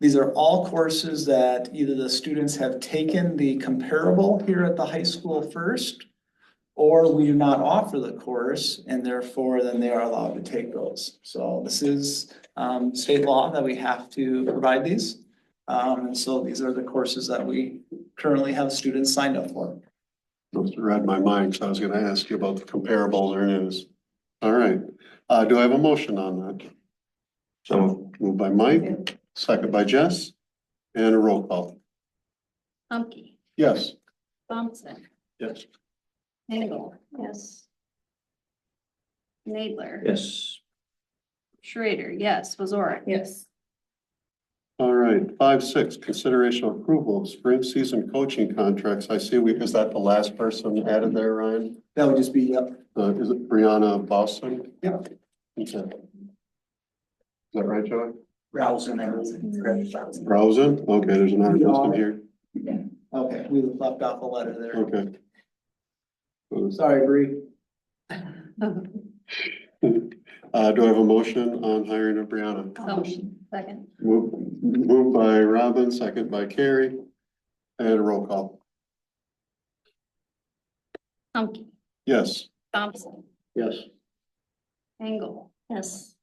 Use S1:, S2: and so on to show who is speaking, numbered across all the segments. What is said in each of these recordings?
S1: These are all courses that either the students have taken the comparable here at the high school first. Or we do not offer the course and therefore then they are allowed to take those. So this is um state law that we have to provide these. Um, and so these are the courses that we currently have students signed up for.
S2: Those read my mind, so I was gonna ask you about the comparables, there it is. All right, uh, do I have a motion on that? So moved by Mike, second by Jess, and a roll call.
S3: Humke,
S2: Yes.
S3: Thompson,
S2: Yes.
S3: Engel. Yes. Nadler.
S4: Yes.
S3: Schrader, yes. Wasorick. Yes.
S2: All right, five, six, consideration approval of spring season coaching contracts. I see we, is that the last person added there, Ryan?
S1: That would just be, yep,
S2: Uh, is it Brianna Boston?
S1: Yep.
S2: Okay. Is that right, Joey?
S5: Rouse and everything. correct, Rouse.
S2: Mm-hmm. Rosen? Okay, there's another person here.
S1: okay, we left off a letter there.
S2: Okay.
S1: Sorry, Bree.
S2: Uh, do I have a motion on hiring of Brianna?
S3: Second.
S2: Move, moved by Robin, second by Carrie. And a roll call.
S3: Humke,
S2: Yes.
S3: Thompson,
S4: Yes.
S3: Engel. Yes.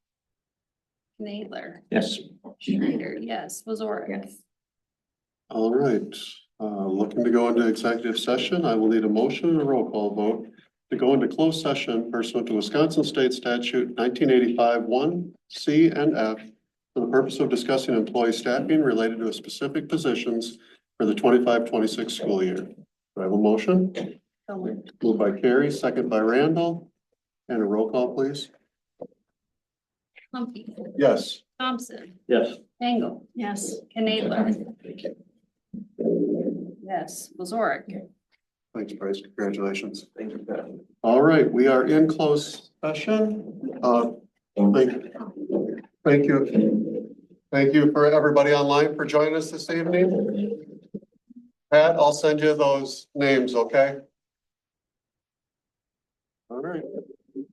S3: Nadler,
S4: Yes.
S3: Schrader, yes. Wasorick. Yes.
S2: All right, uh, looking to go into executive session, I will need a motion and a roll call vote to go into closed session pursuant to Wisconsin State Statute nineteen eighty-five one C and F for the purpose of discussing employee staffing related to specific positions for the 25-26 school year. Do I have a motion?
S3: So moved.
S2: Moved by Carrie, second by Randall. And a roll call, please.
S3: Humke,
S2: Yes.
S3: Thompson,
S4: Yes.
S3: Engel. Yes. Nadler. Yes. Wasorick.
S2: Thanks, Bryce. Congratulations. Thank you. All right, we are in closed session. Uh, Thank thank you. Thank you for everybody online for joining us this evening. Pat, I'll send you those names, okay?